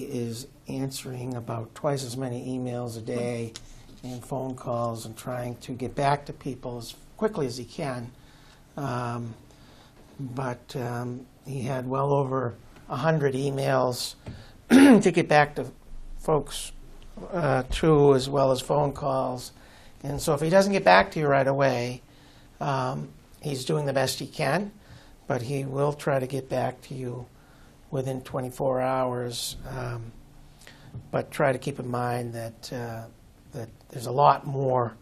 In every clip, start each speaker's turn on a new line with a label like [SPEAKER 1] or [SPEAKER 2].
[SPEAKER 1] is answering about twice as many emails a day and phone calls and trying to get back to people as quickly as he can. Um, But um, he had well over 100 emails to get back to folks uh, too, as well as phone calls. And so if he doesn't get back to you right away, um, he's doing the best he can, but he will try to get back to you within 24 hours. Um, but try to keep in mind that uh, that there's a lot more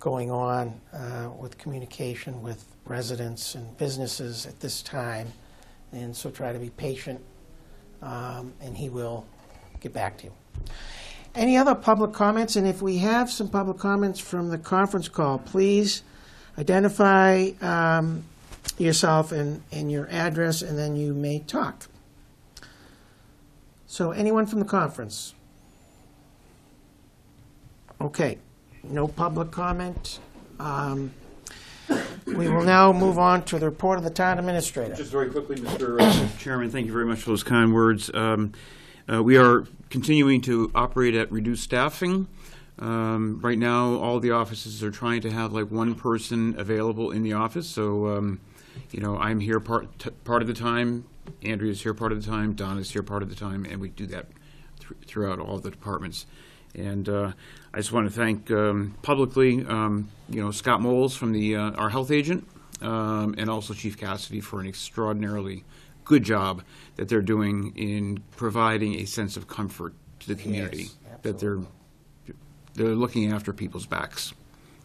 [SPEAKER 1] going on uh, with communication with residents and businesses at this time, and so try to be patient, um, and he will get back to you. Any other public comments? And if we have some public comments from the conference call, please identify um, yourself and, and your address, and then you may talk. So anyone from the conference? Okay, no public comment. Um, We will now move on to the report of the town administrator.
[SPEAKER 2] Just very quickly, Mr. uh, Chairman, thank you very much for those kind words. Um, uh, We are continuing to operate at reduced staffing. Um, Right now, all the offices are trying to have like one person available in the office, so, um, you know, I'm here part, t- part of the time, Andrea's here part of the time, Donna's here part of the time, and we do that thr- throughout all the departments. And uh, I just want to thank um, publicly, um, you know, Scott Moles from the, uh, our health agent, um, and also Chief Cassidy for an extraordinarily good job that they're doing in providing a sense of comfort to the community. That they're, they're looking after people's backs,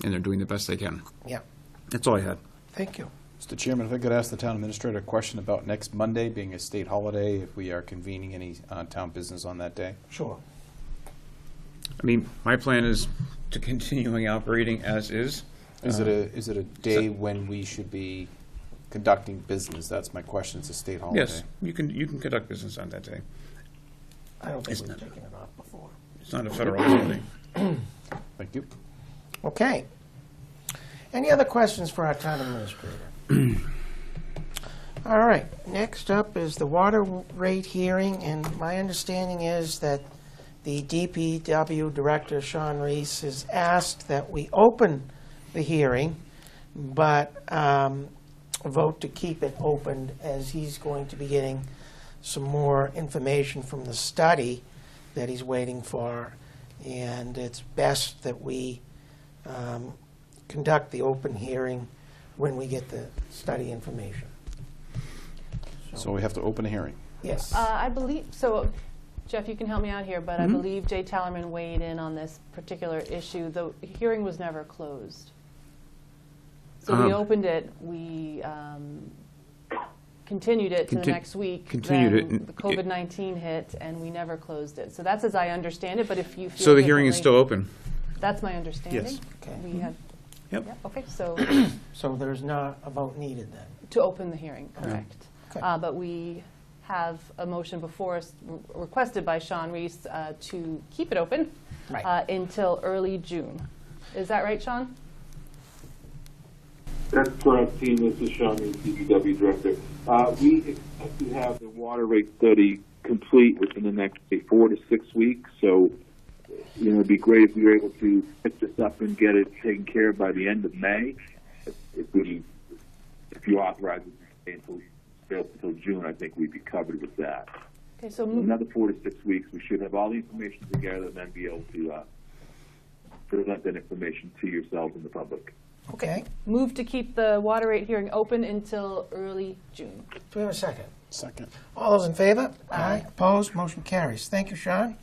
[SPEAKER 2] and they're doing the best they can.
[SPEAKER 1] Yeah,
[SPEAKER 2] That's all I had.
[SPEAKER 1] thank you.
[SPEAKER 3] Mr. Chairman, if I could ask the town administrator a question about next Monday being a state holiday, if we are convening any uh, town business on that day?
[SPEAKER 1] Sure.
[SPEAKER 2] I mean, my plan is to continuing operating as is.
[SPEAKER 3] Is it a, is it a day when we should be conducting business? That's my question, it's a state holiday.
[SPEAKER 2] Yes, you can, you can conduct business on that day.
[SPEAKER 1] I don't think
[SPEAKER 2] It's
[SPEAKER 1] we've
[SPEAKER 2] not-
[SPEAKER 1] taken it off before.
[SPEAKER 2] It's not a federal holiday.
[SPEAKER 3] Thank you.
[SPEAKER 1] Okay. Any other questions for our town administrator? All right, next up is the water rate hearing, and my understanding is that the DPW Director, Sean Reese, has asked that we open the hearing, but um, vote to keep it open as he's going to be getting some more information from the study that he's waiting for, and it's best that we um, conduct the open hearing when we get the study information.
[SPEAKER 3] So we have to open a hearing.
[SPEAKER 1] Yes.
[SPEAKER 4] Uh, I believe, so Jeff, you can help me out here, but I
[SPEAKER 2] Mm-hmm.
[SPEAKER 4] believe Jay Tallerman weighed in on this particular issue. The hearing was never closed. So
[SPEAKER 2] Um.
[SPEAKER 4] we opened it, we um, continued it to the
[SPEAKER 2] Contin-
[SPEAKER 4] next week.
[SPEAKER 2] continued it,
[SPEAKER 4] then
[SPEAKER 2] and
[SPEAKER 4] The
[SPEAKER 2] it-
[SPEAKER 4] COVID-19 hit, and we never closed it. So that's as I understand it, but if you feel
[SPEAKER 2] So the hearing is still
[SPEAKER 4] differently-
[SPEAKER 2] open? Mm-hmm.
[SPEAKER 4] That's my understanding.
[SPEAKER 1] Okay.
[SPEAKER 4] We had,
[SPEAKER 2] Yep.
[SPEAKER 4] yeah, okay, so
[SPEAKER 1] So there's not a vote needed then?
[SPEAKER 4] to open the hearing, correct.
[SPEAKER 1] Okay.
[SPEAKER 4] Uh, But we have a motion before us re- requested by Sean Reese uh, to keep it open
[SPEAKER 1] Right.
[SPEAKER 4] uh, until early June. Is that right, Sean?
[SPEAKER 5] That's correct, team. This is Sean, the DPW director. Uh, we expect to have the water rate study complete within the next say, four to six weeks. So, you know, it'd be great if we were able to pick this up and get it taken care of by the end of May. If- If we, if you authorize it to stay until, stay until June, I think we'd be covered with that.
[SPEAKER 4] Okay, so
[SPEAKER 5] In
[SPEAKER 4] mo-
[SPEAKER 5] another four to six weeks, we should have all the information together and then be able to uh, present that information to yourselves and the public.
[SPEAKER 1] Okay.
[SPEAKER 4] move to keep the water rate hearing open until early June.
[SPEAKER 1] Do we have a second?
[SPEAKER 3] Second.
[SPEAKER 1] All those in favor? Aye. Opposed? Motion carries. Thank you, Sean.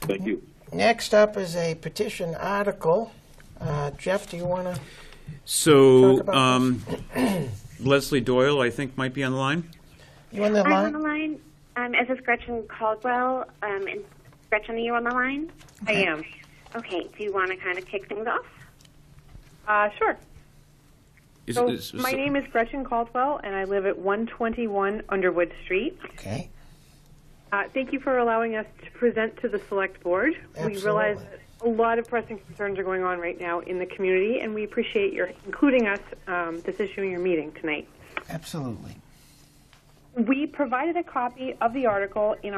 [SPEAKER 5] Thank you.
[SPEAKER 1] Next up is a petition article. Uh, Jeff, do you want to? Talk
[SPEAKER 2] So
[SPEAKER 1] about
[SPEAKER 2] um, Leslie Doyle, I think, might be on the line.
[SPEAKER 1] You on the
[SPEAKER 6] I'm on the
[SPEAKER 1] line?
[SPEAKER 6] line. Um, is this Gretchen Caldwell? Um, and Gretchen, are you on the line?
[SPEAKER 7] I am.
[SPEAKER 6] Okay. Do you want to kind of kick things off?
[SPEAKER 7] Uh, sure.
[SPEAKER 2] Is-
[SPEAKER 7] So
[SPEAKER 2] is-
[SPEAKER 7] my name is Gretchen Caldwell, and I live at 121 Underwood Street.
[SPEAKER 1] Okay.
[SPEAKER 7] Uh, thank you for allowing us to present to the Select Board. We realize
[SPEAKER 1] Absolutely.
[SPEAKER 7] that a lot of pressing concerns are going on right now in the community, and we appreciate your including us um, this issue in your meeting tonight.
[SPEAKER 1] Absolutely.
[SPEAKER 7] We provided a copy of the article in